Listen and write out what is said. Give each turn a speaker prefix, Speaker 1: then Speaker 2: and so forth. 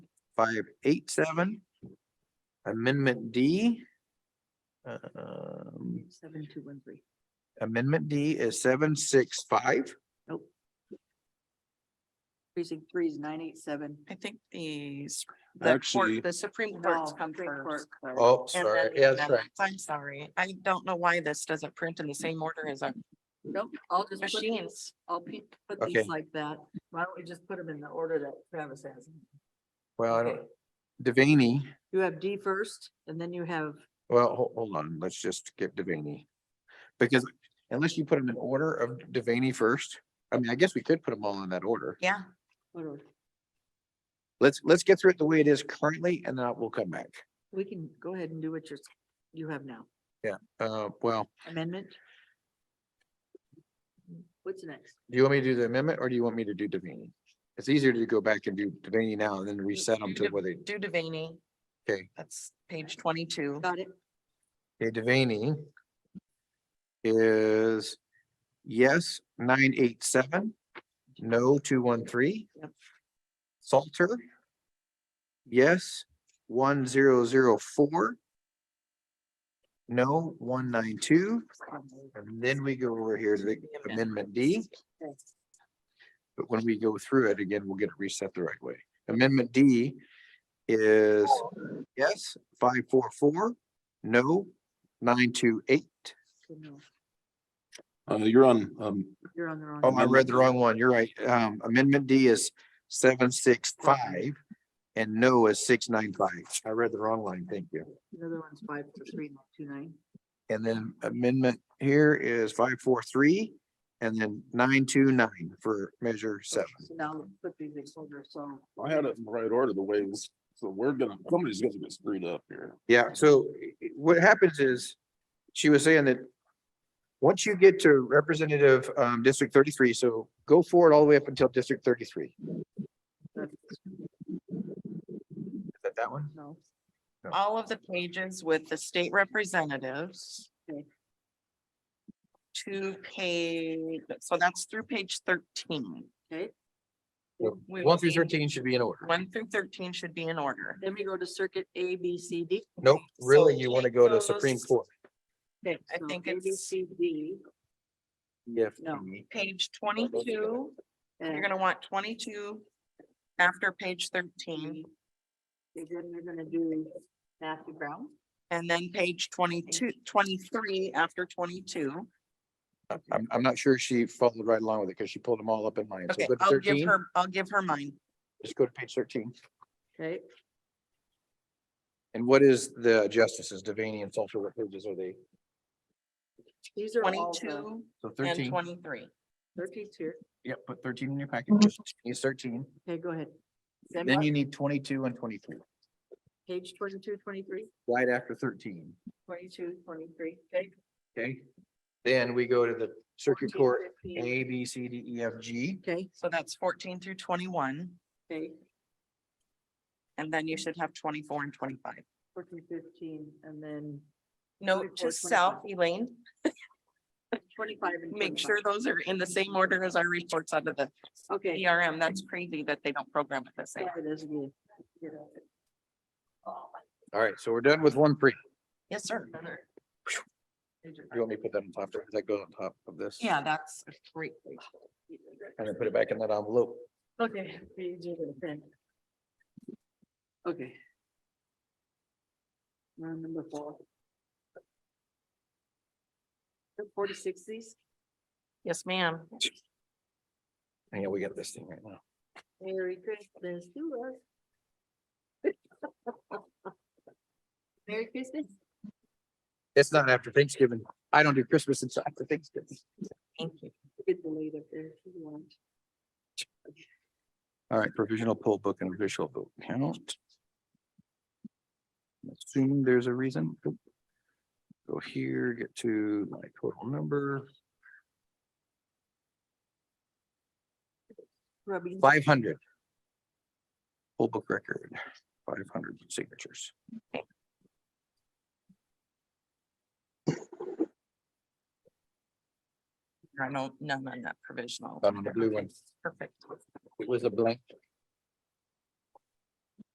Speaker 1: five eight seven. Amendment D. Um,
Speaker 2: Seven, two, one, three.
Speaker 1: amendment D is seven six five.
Speaker 2: Precinct three is nine, eight, seven.
Speaker 3: I think these, the
Speaker 4: Actually-
Speaker 3: court, the Supreme Court's
Speaker 2: No,
Speaker 3: come
Speaker 2: Supreme
Speaker 3: first.
Speaker 2: Court, sorry.
Speaker 1: Oh,
Speaker 3: and
Speaker 1: sorry,
Speaker 3: then the
Speaker 1: yeah, that's right.
Speaker 3: amendments. I'm sorry. I don't know why this doesn't print in the same order as our
Speaker 2: Nope, I'll just put, these-
Speaker 3: machines.
Speaker 2: I'll pe- put
Speaker 1: Okay.
Speaker 2: these like that. Why don't we just put them in the order that Travis has? them?
Speaker 1: Well, I don't,
Speaker 2: Okay.
Speaker 1: Devaney,
Speaker 2: You have D first and then you have,
Speaker 1: well, ho- hold on, let's just get Devaney. Because unless you put them in order of Devaney first, I mean, I guess we could put them all in that order.
Speaker 3: Yeah,
Speaker 2: what are-
Speaker 1: Let's, let's get through it the way it is currently and then we'll come back.
Speaker 2: we can go ahead and do what you're, s- you have now.
Speaker 1: Uh, well,
Speaker 2: Amendment? What's next?
Speaker 1: do you want me to do the amendment or do you want me to do Devaney? It's easier to go back and do Devaney now and then reset them to where they,
Speaker 3: do Devaney.
Speaker 1: Okay.
Speaker 3: That's page twenty-two.
Speaker 2: Got it?
Speaker 1: okay, Devaney is yes, nine, eight, seven, no, two, one, three.
Speaker 2: Yep.
Speaker 1: Salter. Yes, one, zero, zero, four. No, one, nine, two, and then we go over here to the
Speaker 3: The
Speaker 1: amendment D. But when we go through it again, we'll get it reset the right way. Amendment D is yes, five, four, four, no, nine, two, eight.
Speaker 2: So no,
Speaker 4: Uh, you're on, um,
Speaker 2: You're on the wrong.
Speaker 1: Oh, I
Speaker 2: one.
Speaker 1: read the wrong one. You're right. Um, amendment D is seven, six, five. And no is six, nine, five. I read the wrong line. Thank you.
Speaker 2: The other one's five, three, two, nine.
Speaker 1: And then amendment here is five, four, three, and then nine, two, nine for measure seven.
Speaker 2: So now let's put these in order, so.
Speaker 4: I had it in the right order, the way it was, so we're gonna, somebody's gonna get screwed up here.
Speaker 1: Yeah, so i- i- what happens is, she was saying that once you get to Representative um District thirty-three, so go forward all the way up until District thirty-three. Is
Speaker 2: that's-
Speaker 1: that that one?
Speaker 2: No,
Speaker 3: All of the pages with the state representatives.
Speaker 2: Okay.
Speaker 3: To page, so that's through page thirteen.
Speaker 2: okay,
Speaker 3: We
Speaker 1: One through
Speaker 3: need-
Speaker 1: thirteen should be in order.
Speaker 3: One through thirteen should be in order.
Speaker 2: then we go to circuit A, B, C, D.
Speaker 1: Nope,
Speaker 3: So
Speaker 1: really, you want to
Speaker 3: take
Speaker 1: go to Supreme
Speaker 3: those-
Speaker 1: Court.
Speaker 2: Okay,
Speaker 3: I
Speaker 2: so
Speaker 3: think
Speaker 2: A, B,
Speaker 3: it's-
Speaker 2: C, D,
Speaker 1: Yes.
Speaker 2: No.
Speaker 3: Page twenty-two, you're
Speaker 2: and
Speaker 3: gonna want twenty-two after page thirteen,
Speaker 2: then you're gonna do Matthew Brown.
Speaker 3: and then page 22, 23 after twenty-two.
Speaker 1: I'm, I'm not sure she followed right along with it because she pulled them all up in line. So
Speaker 3: Okay,
Speaker 1: go to
Speaker 3: I'll give
Speaker 1: thirteen,
Speaker 3: her, I'll give her mine.
Speaker 1: just go to page thirteen.
Speaker 2: Okay,
Speaker 1: And what is the justices, Devaney and Salter, what pages are they?
Speaker 2: these are all the
Speaker 3: Twenty-two
Speaker 1: So
Speaker 3: and
Speaker 1: thirteen,
Speaker 3: twenty-three.
Speaker 2: thirties here.
Speaker 1: yep, put thirteen in your packet, just use thirteen.
Speaker 2: Okay, go ahead. Then
Speaker 1: Then
Speaker 2: what?
Speaker 1: you need twenty-two and twenty-three,
Speaker 2: Page twenty-two, twenty-three,
Speaker 1: right after thirteen,
Speaker 2: twenty-two, twenty-three, okay?
Speaker 1: okay? Then we go to the circuit
Speaker 2: 14,
Speaker 1: court,
Speaker 2: 15,
Speaker 1: A, B, C, D, E, F, G.
Speaker 2: Okay,
Speaker 3: So that's fourteen through twenty-one,
Speaker 2: okay,
Speaker 3: and then you should have twenty-four and twenty-five.
Speaker 2: fourteen, fifteen, and then
Speaker 3: Note
Speaker 2: 24,
Speaker 3: to self,
Speaker 2: 25.
Speaker 3: Elaine,
Speaker 2: twenty-five and
Speaker 3: make sure
Speaker 2: 25.
Speaker 3: those are in the same order as our reports out of the
Speaker 2: Okay.
Speaker 3: ERM. That's crazy that they don't program it the same.
Speaker 2: yeah, it is good. Get out there.
Speaker 1: All right, so we're done with one pre.
Speaker 3: Yes, sir.
Speaker 2: Another. Major
Speaker 1: You want me to put that on top, does that go on top of this?
Speaker 3: Yeah, that's a great. way.
Speaker 2: part.
Speaker 1: And then put it back in that envelope.
Speaker 2: Okay. page of the pen. Okay. Round Number four. Forty sixties,
Speaker 3: Yes, ma'am.
Speaker 1: Yeah, we got this thing right now.
Speaker 2: Merry Christmas to us. Merry Christmas.
Speaker 1: It's not after Thanksgiving. I don't do Christmas until after Thanksgiving.
Speaker 3: Thank you.
Speaker 2: Get delayed up there if you want.
Speaker 1: All right, provisional poll book and official vote count. Assume there's a reason. Go here, get to my total number,
Speaker 2: Rubbing.
Speaker 1: five hundred. Poll book record, five hundred signatures.
Speaker 3: I know none on that provisional.
Speaker 1: None on Um, the blue one.
Speaker 3: Perfect.
Speaker 1: It was a blank.